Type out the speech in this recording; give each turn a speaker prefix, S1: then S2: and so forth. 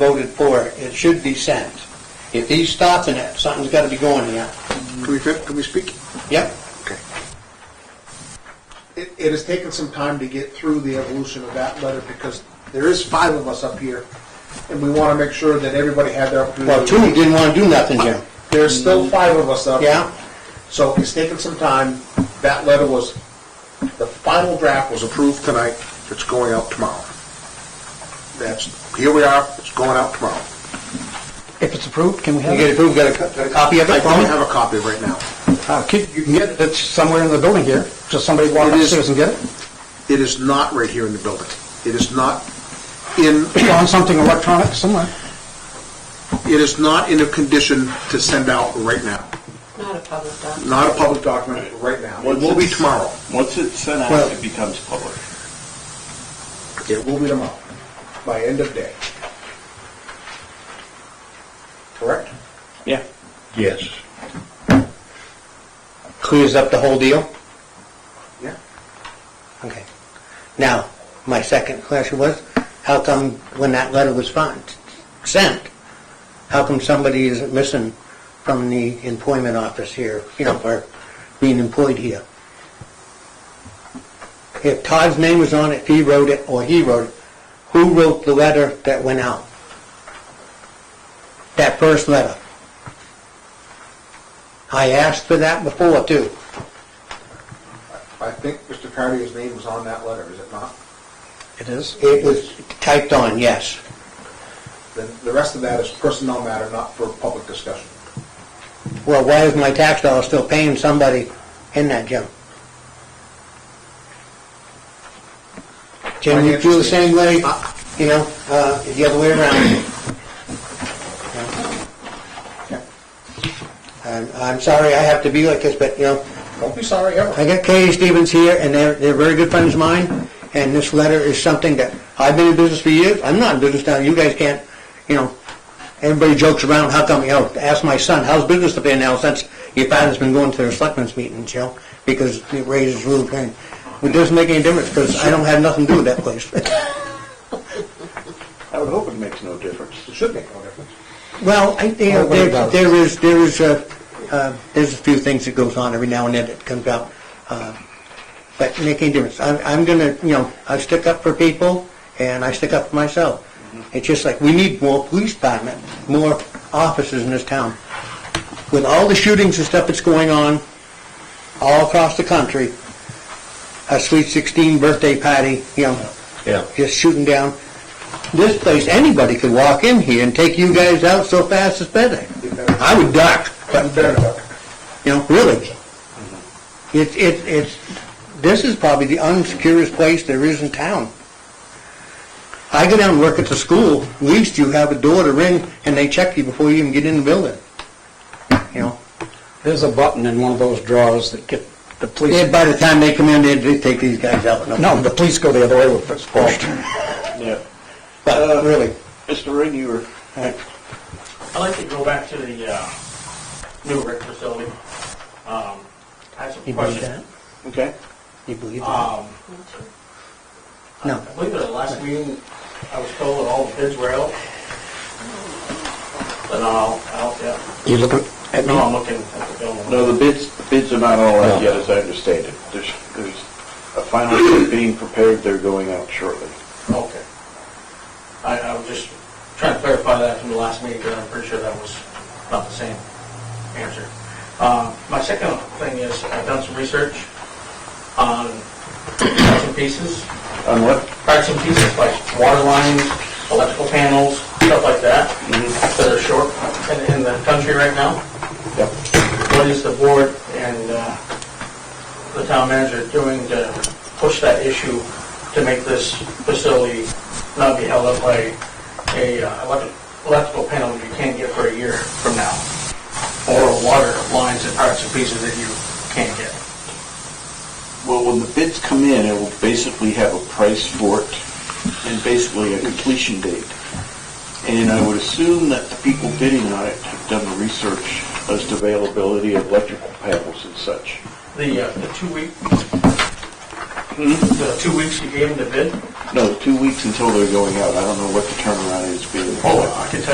S1: voted for it, it should be sent. If he's stopping it, something's gotta be going here.
S2: Can we, fit- can we speak?
S1: Yep,
S2: It, it has taken some time to get through the evolution of that letter because there is five of us up here and we want to make sure that everybody had their
S1: well,
S2: opportunity.
S1: two didn't wanna do nothing, Jim.
S2: There's still five of us up.
S1: Yeah?
S2: So it's taken some time. That letter was, the final draft was approved tonight. It's going out tomorrow. That's, here we are, it's going out tomorrow.
S3: If it's approved, can we
S1: You
S3: have
S1: get
S3: it?
S1: approved, got a co- a copy of
S2: I
S1: it from
S2: don't
S1: him?
S2: have a copy right now.
S3: Uh, kid, You can get it, it's somewhere in the building here, just somebody walk
S2: It is-
S3: upstairs and get it.
S2: It is not right here in the building. It is not in,
S3: It's on something electronic somewhere.
S2: it is not in a condition to send out right now.
S4: Not a public document.
S2: Not a public document right now. It will be tomorrow.
S5: Once it's sent
S1: Well-
S5: out, it becomes public.
S2: It will be tomorrow, by end of day. Correct?
S5: Yeah.
S1: Yes. Clears up the whole deal?
S2: Yeah.
S1: Okay. Now, my second question was, how come when that letter was fin- sent, how come somebody isn't missing from the employment office here, you know, or being employed here? If Todd's name was on it, if he wrote it, or he wrote it, who wrote the letter that went out? That first letter? I asked for that before, too.
S2: I think Mr. Cartier's name was on that letter, is it not?
S3: It is.
S1: It was typed on, yes.
S2: Then the rest of that is personnel matter, not for public discussion.
S1: Well, why is my tax dollar still paying somebody in that gym? Can you feel the same way, you know, uh, the other way around? I'm, I'm sorry I have to be like this, but, you know,
S2: Don't be sorry ever.
S1: I got K.A. Stevens here, and they're, they're very good friends of mine, and this letter is something that, I've been in business for years, I'm not in business now, you guys can't, you know, everybody jokes around, how come, you know, ask my son, how's business been now since your father's been going to their selectmen's meetings, you know, because it raises real pain. It doesn't make any difference, because I don't have nothing to do with that place.
S5: I would hope it makes no difference.
S2: It should make no difference.
S1: Well, I, you know,
S3: Well, what
S1: there,
S3: about-
S1: there is, there is, uh, uh, there's a few things that goes on every now and then that comes out, uh, but it make any difference. I'm, I'm gonna, you know, I stick up for people and I stick up for myself.
S3: Mm-hmm.
S1: It's just like, we need more police department, more officers in this town. With all the shootings and stuff that's going on all across the country, a sweet sixteen birthday party, you know,
S6: Yeah.
S1: just shooting down. This place, anybody could walk in here and take you guys out so fast it's better. I would duck,
S2: But you better know.
S1: you know, really. It, it, it's, this is probably the unsecurest place there is in town. I go down and work at the school, at least you have a door to ring and they check you before you even get in the building. You know,
S3: There's a button in one of those drawers that get the police,
S1: And by the time they come in, they- they take these guys out.
S3: no, the police go the other way with this uh, post.
S5: Yeah.
S1: But really,
S5: Mr. Ring, you were,
S7: I'd like to go back to the uh, new rec facility. Um, I have some
S1: you believe that?
S7: questions.
S5: okay.
S1: You believe that?
S7: Um,
S1: No.
S7: I believe at the last meeting, I was told that all the bids were out. But not all out yet.
S3: You looking at
S7: No,
S3: me?
S7: I'm looking at the building.
S5: No, the bids, the bids are not all
S3: No.
S5: out yet, as I understand it. There's, there's a final bid being prepared, they're going out shortly.
S7: Okay. I, I was just trying to clarify that from the last meeting, but I'm pretty sure that was not the same answer. Uh, my second thing is, I've done some research on parts and pieces,
S5: On what?
S7: parts and pieces like water lines, electrical panels, stuff like that, that are short in, in the country right now.
S5: Yep.
S7: What is the board and, uh, the town manager doing to push that issue to make this facility not be held up by a uh, elec- electrical panel that you can't get for a year from now? Or water lines and parts and pieces that you can't get?
S5: Well, when the bids come in, it will basically have a price for it and basically a completion date. And I would assume that the people bidding on it have done the research as to availability of electrical panels and such.
S7: Mm-hmm. The, uh, the two week, the two weeks you gave him to bid,
S5: No, two weeks until they're going out. I don't know what the turnaround is being.
S7: Oh, I can tell